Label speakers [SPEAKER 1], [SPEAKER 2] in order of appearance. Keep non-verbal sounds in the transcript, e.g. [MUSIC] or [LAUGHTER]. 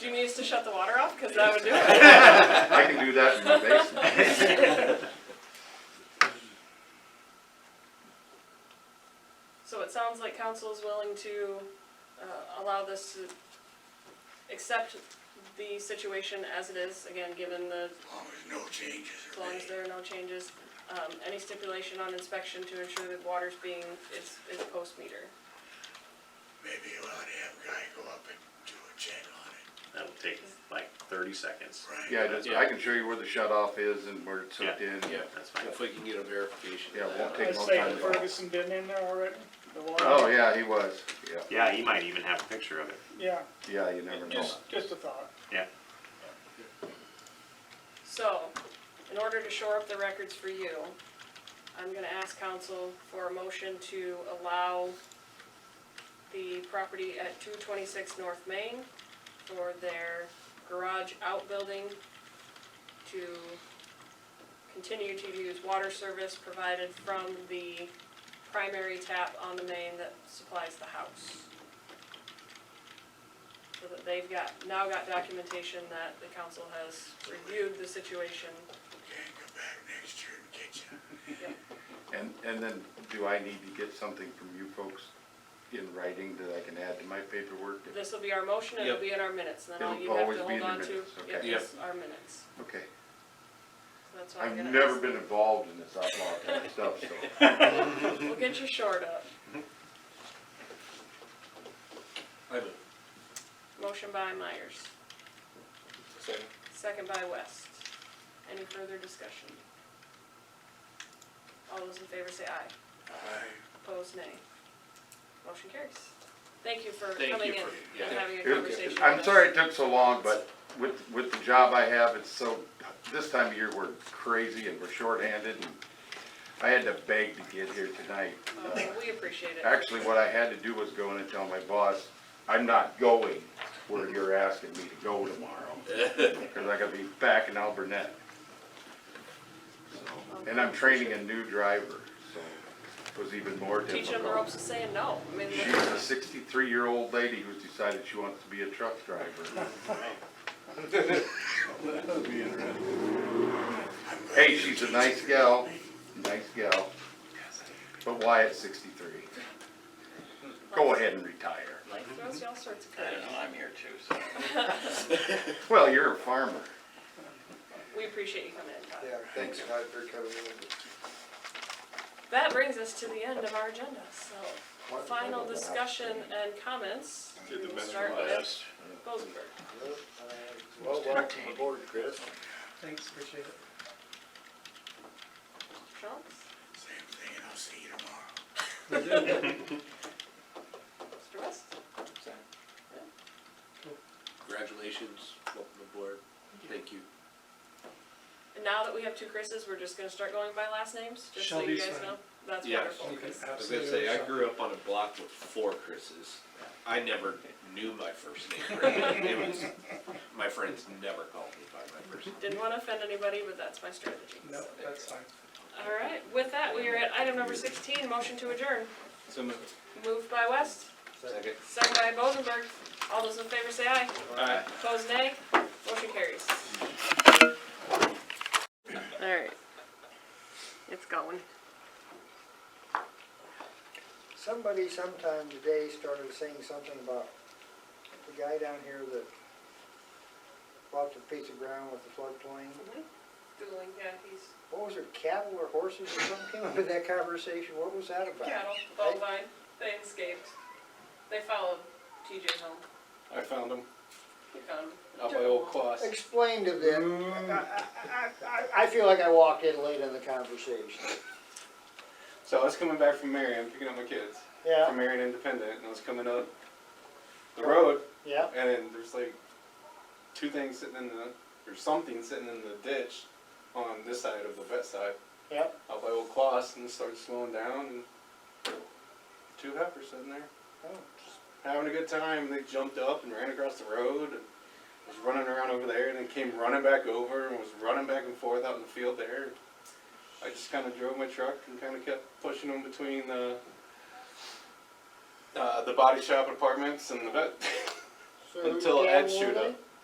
[SPEAKER 1] Do you need us to shut the water off? Cause that would do it.
[SPEAKER 2] I can do that
[SPEAKER 1] [LAUGHS]
[SPEAKER 2] in my basement.
[SPEAKER 1] So it sounds like council is willing to, uh, allow this to accept the situation as it is, again, given the,
[SPEAKER 3] As long as no changes
[SPEAKER 1] as
[SPEAKER 3] are
[SPEAKER 1] long as
[SPEAKER 3] made.
[SPEAKER 1] there are no changes. Um, any stipulation on inspection to ensure that water's being, is, is post meter.
[SPEAKER 3] Maybe you ought to have a guy go up and do a check on it.
[SPEAKER 4] That'll take like thirty seconds.
[SPEAKER 3] Right.
[SPEAKER 2] Yeah, just- I can show you where the shut off is and where it's hooked in.
[SPEAKER 4] Yeah, that's fine.
[SPEAKER 5] If we can get a verification.
[SPEAKER 2] Yeah,
[SPEAKER 5] of
[SPEAKER 2] it
[SPEAKER 5] that.
[SPEAKER 2] won't take
[SPEAKER 6] I'd
[SPEAKER 2] no
[SPEAKER 6] say
[SPEAKER 2] time. at all.
[SPEAKER 6] Ferguson been in there already, the water.
[SPEAKER 2] Oh, yeah, he was, yeah,
[SPEAKER 4] Yeah, you might even have a picture of it.
[SPEAKER 6] Yeah,
[SPEAKER 2] yeah, you never know.
[SPEAKER 6] just, just a thought.
[SPEAKER 4] Yeah.
[SPEAKER 1] So, in order to shore up the records for you, I'm gonna ask council for a motion to allow the property at two twenty-six North Main for their garage outbuilding to continue to use water service provided from the primary tap on the main that supplies the house. So that they've got, now got documentation that the council has reviewed the situation.
[SPEAKER 3] Can't come back next year and get you.
[SPEAKER 2] And, and then do I need to get something from you folks in writing that I can add to my paperwork?
[SPEAKER 1] This will be our motion, and it'll be in our minutes, and then all
[SPEAKER 2] It'll
[SPEAKER 1] you have
[SPEAKER 2] always
[SPEAKER 1] to
[SPEAKER 2] be in
[SPEAKER 1] hold
[SPEAKER 2] the
[SPEAKER 1] on to,
[SPEAKER 2] minutes,
[SPEAKER 1] yep,
[SPEAKER 2] okay.
[SPEAKER 1] is our minutes.
[SPEAKER 2] Okay,
[SPEAKER 1] So that's what I'm
[SPEAKER 2] I've
[SPEAKER 1] gonna
[SPEAKER 2] never
[SPEAKER 1] ask.
[SPEAKER 2] been involved in this outlaw kind of stuff, so.
[SPEAKER 1] [LAUGHS] We'll get you shored up.
[SPEAKER 5] I move.
[SPEAKER 1] Motion by Myers, second by West. Any further discussion? All those in favor say aye.
[SPEAKER 3] Aye.
[SPEAKER 1] Opposed, nay. Motion carries. Thank you for
[SPEAKER 5] Thank
[SPEAKER 1] coming
[SPEAKER 5] you
[SPEAKER 1] in
[SPEAKER 5] for- yeah.
[SPEAKER 1] and having a
[SPEAKER 2] It-
[SPEAKER 1] conversation with us.
[SPEAKER 2] I'm sorry it took so long, but with, with the job I have, it's so, this time of year, we're crazy and we're shorthanded and I had to beg to get here tonight. Uh,
[SPEAKER 1] Uh, We appreciate it.
[SPEAKER 2] Actually, what I had to do was go in and tell my boss, I'm not going where you're asking me to go tomorrow. Cause I gotta be back in Alburnett. So, And I'm training a new driver, so it was even more difficult.
[SPEAKER 1] Teaching them the ropes of saying no. I mean,
[SPEAKER 2] She's a sixty-three-year-old lady who's decided she wants to be a truck driver. Hey, she's a nice gal, nice gal, but why at sixty-three? Go ahead and retire.
[SPEAKER 1] life throws you all sorts of
[SPEAKER 5] I
[SPEAKER 1] curves.
[SPEAKER 5] don't know, I'm here too, so.
[SPEAKER 2] Well, you're a farmer.
[SPEAKER 1] We appreciate you coming in, Todd.
[SPEAKER 7] Yeah, thanks, Todd, for coming in.
[SPEAKER 1] That brings us to the end of our agenda, so final discussion and comments. Did the minister last? Rosenberg.
[SPEAKER 7] Well, welcome aboard, Chris.
[SPEAKER 1] Jones,
[SPEAKER 3] Same thing, and I'll see you tomorrow.
[SPEAKER 1] Mr. West,
[SPEAKER 5] Congratulations, welcome aboard, thank you.
[SPEAKER 1] and now that we have two Chris's, we're just gonna start going by last names, just so you guys know. That's
[SPEAKER 5] Yeah.
[SPEAKER 1] wonderful, 'cause
[SPEAKER 5] I was gonna say, I grew up on a block with four Chris's. I never knew my first
[SPEAKER 8] [LAUGHS]
[SPEAKER 5] name. really. It was, my friends never called me by my first name.
[SPEAKER 1] didn't wanna offend anybody, but that's my strategy.
[SPEAKER 6] No, that's fine.
[SPEAKER 1] All right, with that, we are at item number sixteen, motion to adjourn.
[SPEAKER 5] So moved.
[SPEAKER 1] Moved by West,
[SPEAKER 5] Second.
[SPEAKER 1] second by Rosenberg. All those in favor say aye.
[SPEAKER 5] Aye.
[SPEAKER 1] Opposed, nay. Motion carries. All right. It's going.
[SPEAKER 7] Somebody sometime today started saying something about the guy down here that bought the piece of ground with the floodplain.
[SPEAKER 1] Dueling, yeah, he's
[SPEAKER 7] What was it, cattle or horses or something [LAUGHS] came up in that conversation? What was that about?
[SPEAKER 1] cattle, bovine, they escaped. They followed TJ home.
[SPEAKER 5] I found them
[SPEAKER 1] He found him.
[SPEAKER 5] out by Old Quas.
[SPEAKER 7] Explain to them. I, I- I, I feel like I walked in late in the conversation.
[SPEAKER 8] So I was coming back from Marion, picking up my kids from
[SPEAKER 7] Yeah,
[SPEAKER 8] Marion Independent, and I was coming up the road,
[SPEAKER 7] yeah.
[SPEAKER 8] and then there's like two things sitting in the, or something sitting in the ditch on this side of the vet side.
[SPEAKER 7] Yep.
[SPEAKER 8] Out by Old Quas, and it started slowing down, and two heifers sitting there,
[SPEAKER 7] Oh,
[SPEAKER 8] having a good time. They jumped up and ran across the road, and was running around over there, and then came running back over, and was running back and forth out in the field there. I just kind of drove my truck and kind of kept pushing them between the uh, the body shop apartments and the vet
[SPEAKER 7] so whose
[SPEAKER 8] Until [LAUGHS]
[SPEAKER 7] cattle
[SPEAKER 8] Ed
[SPEAKER 7] were
[SPEAKER 8] showed
[SPEAKER 7] they?
[SPEAKER 8] up.